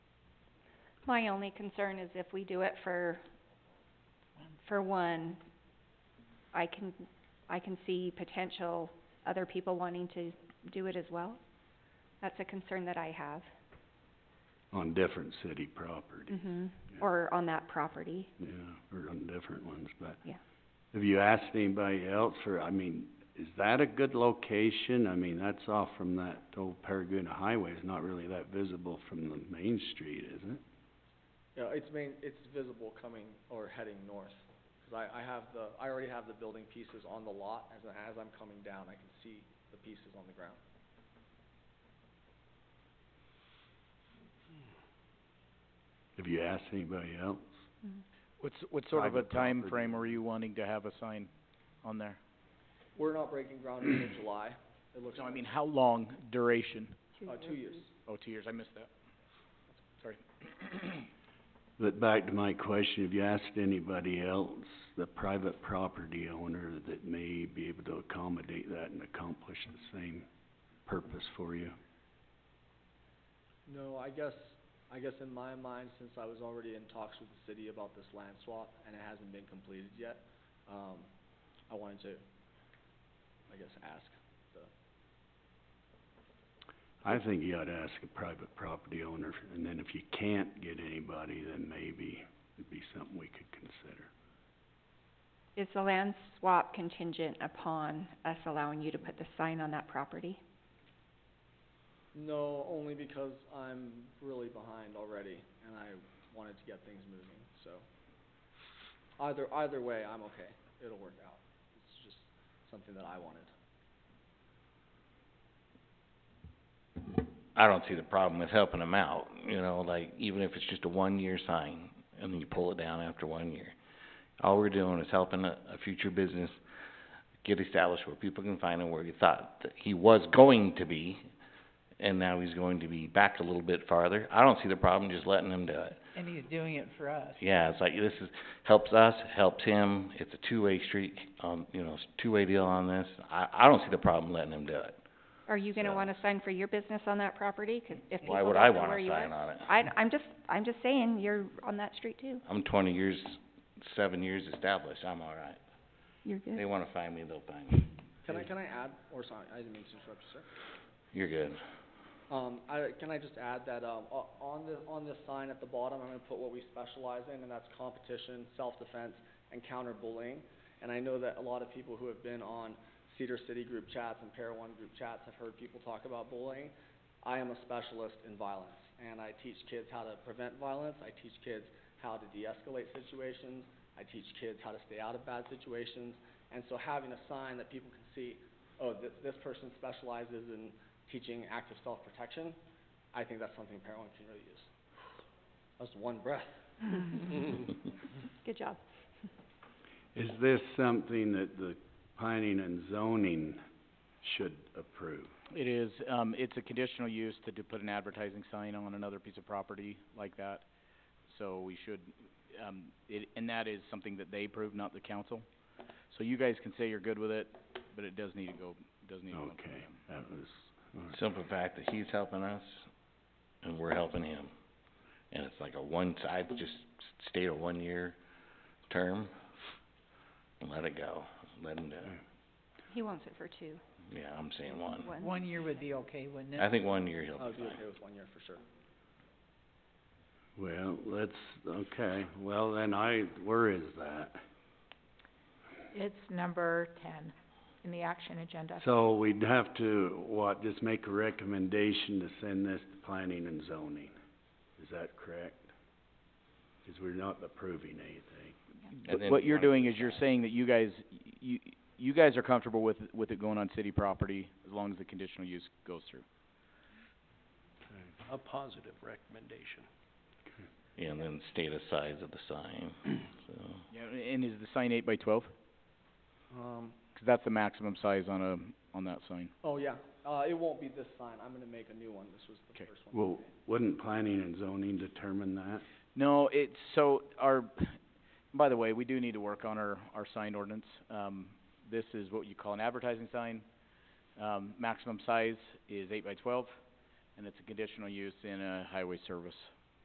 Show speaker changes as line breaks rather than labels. my only concern is if we do it for, for one, I can, I can see potential other people wanting to do it as well. That's a concern that I have,
on different city property,
mhm, or on that property.
yeah, or on different ones, but.
Yeah.
Have you asked anybody else, or, I mean, is that a good location? I mean, that's off from that old Paragona Highway, it's not really that visible from the main street, is it?
Yeah, it's main, it's visible coming or heading north, 'cause I, I have the, I already have the building pieces on the lot, as, as I'm coming down, I can see the pieces on the ground.
Have you asked anybody else?
What's, what sort of a
Private property.
timeframe are you wanting to have a sign on there?
We're not breaking ground until July, it looks
No, I
like,
mean, how long duration?
uh, two years.
Oh, two years, I missed that. Sorry.
But back to my question, have you asked anybody else, the private property owner, that may be able to accommodate that and accomplish the same purpose for you?
No, I guess, I guess in my mind, since I was already in talks with the city about this land swap, and it hasn't been completed yet, um, I wanted to, I guess, ask the
I think you ought to ask a private property owner, and then if you can't get anybody, then maybe it'd be something we could consider.
Is the land swap contingent upon us allowing you to put the sign on that property?
No, only because I'm really behind already, and I wanted to get things moving, so. Either, either way, I'm okay, it'll work out, it's just something that I wanted.
I don't see the problem with helping them out, you know, like, even if it's just a one-year sign, and then you pull it down after one year. All we're doing is helping a, a future business get established where people can find him where he thought that he was going to be, and now he's going to be back a little bit farther. I don't see the problem just letting him do it.
And he's doing it for us.
Yeah, it's like, this is, helps us, helps him, it's a two-way street, um, you know, it's a two-way deal on this. I, I don't see the problem letting him do it.
Are you gonna
So-
want a sign for your business on that property? 'Cause if people
Why
don't
would I
know
want
where
a
you
sign
are.
on it?
I, I'm just, I'm just saying, you're on that street too.
I'm twenty years, seven years established, I'm all right.
You're
They
good.
wanna find me, they'll find me.
Can I, can I add, or sorry, I didn't mean to interrupt you, sir.
You're good.
Um, I, can I just add that, um, o- on the, on this sign at the bottom, I'm gonna put what we specialize in, and that's competition, self-defense, and counter-bullying. And I know that a lot of people who have been on Cedar City group chats and Para One group chats have heard people talk about bullying. I am a specialist in violence, and I teach kids how to prevent violence, I teach kids how to de-escalate situations, I teach kids how to stay out of bad situations. And so having a sign that people can see, oh, this, this person specializes in teaching active self-protection, I think that's something Parent One can really use. That's one breath.
Good job.
Is this something that the planning and zoning should approve?
It is, um, it's a conditional use to, to put an advertising sign on another piece of property like that. So we should, um, it, and that is something that they approve, not the council. So you guys can say you're good with it, but it does need to go, does need to go through
Okay,
them.
that was, all right.
Simple fact that he's helping us and we're helping him. And it's like a one, I just stayed a one-year term, let it go, let him do it.
He wants it for two,
Yeah, I'm saying one.
one.
One year would be okay, wouldn't
I
it?
think one year Oh, he'll
I
be
would be
fine.
okay with one year
well,
for sure.
let's, okay, well, then I, where is that?
It's number ten in the action agenda.
So we'd have to, what, just make a recommendation to send this to planning and zoning, is that correct? Cause we're not approving anything.
And
But
then
what you're
one of
doing
the
is you're
sides.
saying that you guys, you, you guys are comfortable with, with it going on city property as long as the conditional use goes through.
a positive recommendation.
Yeah, and then state the size of the sign, so.
Yeah, and is the sign eight by twelve?
Um,
'Cause that's the maximum size on a, on that sign.
oh yeah, uh, it won't be this sign, I'm gonna make a new one, this was the
Okay.
first one.
Well, wouldn't planning and zoning determine that?
No, it's, so, our, by the way, we do need to work on our, our sign ordinance. Um, this is what you call an advertising sign. Um, maximum size is eight by twelve, and it's a conditional use in a highway service